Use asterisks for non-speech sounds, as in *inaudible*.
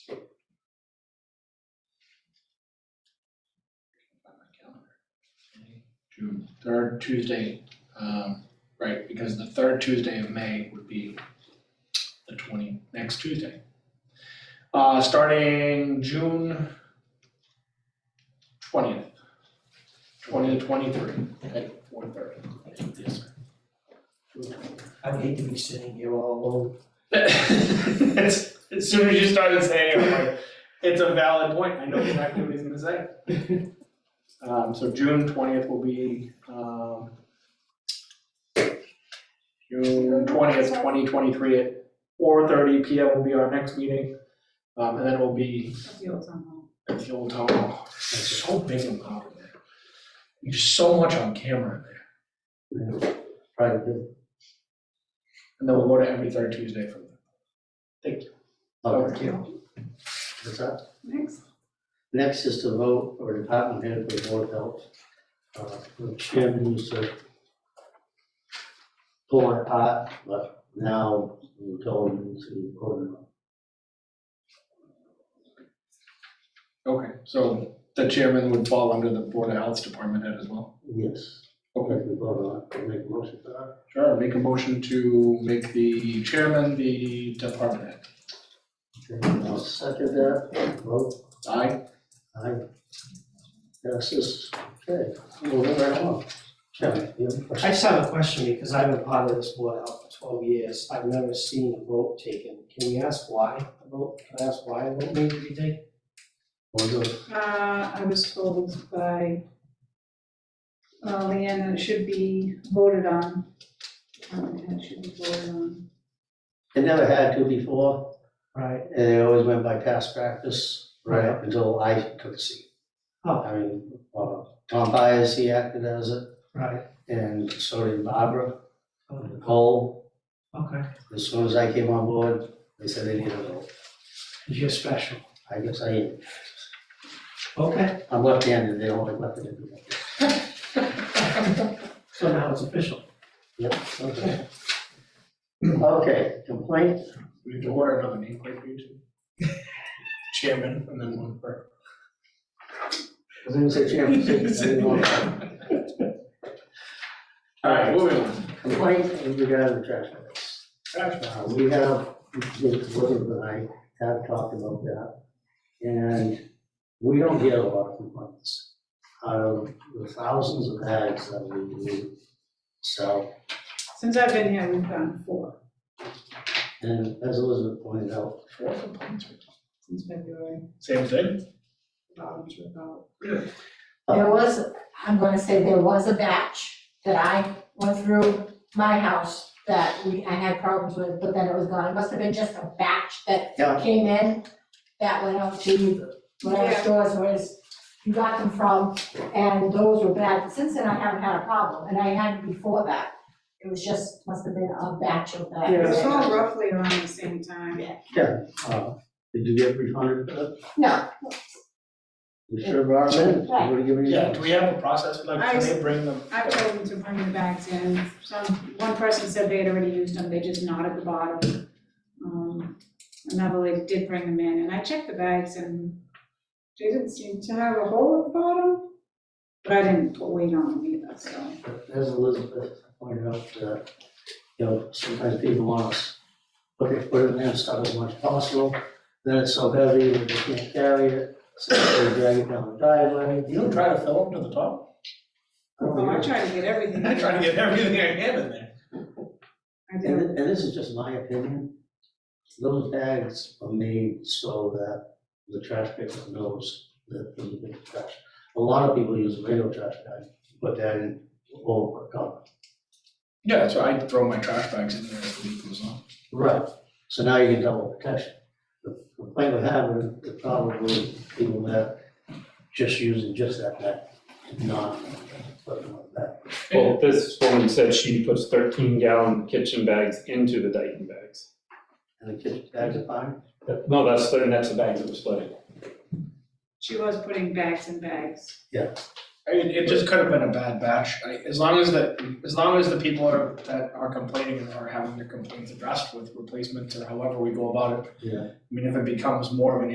June third Tuesday, um, right, because the third Tuesday of May would be the twenty, next Tuesday. Uh, starting June twentieth, twenty to twenty-three, at four thirty. Yes, sir. I'd hate to be sitting here all alone. *laughs* As, as soon as you started saying it, I'm like, it's a valid point, I know exactly what he's gonna say. Um, so June twentieth will be, um, June twentieth, twenty twenty-three at four thirty P M will be our next meeting. Um, and then it will be at the old town hall. It's so big and loud in there. There's so much on camera in there. Probably And then we'll go to every third Tuesday from there. public hearing. What's that? Next is to vote for department head for board of health. Uh, The chair needs to pull it apart, but now we're told to vote on Okay, so the chairman would fall under the Board of Health's department head as well? it. Yes. Okay. We vote on it, make a motion for that. Sure, make a motion to make the chairman the department head. And I'll second that, vote, Aye? aye. That's just, okay, we'll move right along. Kevin, you have a question? I just have a question because I've been part of this board out for twelve years. I've never seen a vote taken. Can we ask why a vote, can I ask why a vote needed to be taken? We'll do it. Uh, I was told by uh, Leanne that it should be voted on. Um, and It should be voted on. They never had to before, Right. and they always went by past practice, right up until I took a seat. Oh. I mean, uh, Tom Byers, he acted as it, Right, and so did Barbara, Oh, Nicole. okay. As soon as I came on board, they said they needed a vote. You're special. I guess I am. Okay, I'm left-handed, they don't like left-handed people. so now it's official. Yep, okay. Okay, complaint, We have to order another nameplate for you two. *laughs* Chairman and then one for. was gonna say chairman, *laughs* I didn't want to- All right, moving on. complaint in regard to the trash pickups. Trash Uh, We have, Elizabeth and I have talked about that, and we don't get a lot of complaints. Out of the thousands of bags that we do sell, Since I've been here, we've gotten four and as Elizabeth pointed out, Four complaints. since February. Same thing? Bob's without. There was, I'm gonna say there was a batch that I went through my house that we, I had problems with, but then it was gone. It must have been just a batch that Yeah. came in, that went out to whatever Yeah. stores was, you got them from, and those were bad. But Since then, I haven't had a problem, and I had before that. It was just, must have been a batch of that. It was all roughly around the same time. uh, did you get refunded for that? No, You sure brought them in, Right. what do you mean? Yeah, do we have a process for like, I can they bring them? I've told them to bring the bags in. Some, one person said they had already used them, they just not at the bottom. Um, Another lady did bring them in, and I checked the bags and they didn't seem to have a hole at the bottom. But I didn't put weight on them either, so. But As Elizabeth pointed out, uh, you know, sometimes people want us, put it, put it in there, stuff as much as possible. Then it's so heavy that they can't carry it, so they drag it down the driveway. You don't try to fill them to the top? Oh, I tried to get *laughs* everything. I try to get everything I can in there. I And, did. th- and this is just my opinion. Those bags are made so that the trash pickup knows that there's a big trash. A lot of people use a regular trash bag, put that in over a cup. Yeah, that's why I throw my trash bags in there as the week goes on. Right, so now you can double protection. The complaint we have is the probably people that just using just that bag, not putting it like that. Well, this woman said she puts thirteen gallon kitchen bags into the Dayton bags. And the kids' bags are fine. That- No, that's, the- and that's the bags that were splitting. She was putting bags in bags. I mean, it just could have been a bad batch, I, as long as the, as long as the people are, that are complaining and are having their complaints addressed with replacements or however we go about it. Yeah. I mean, if it becomes more of an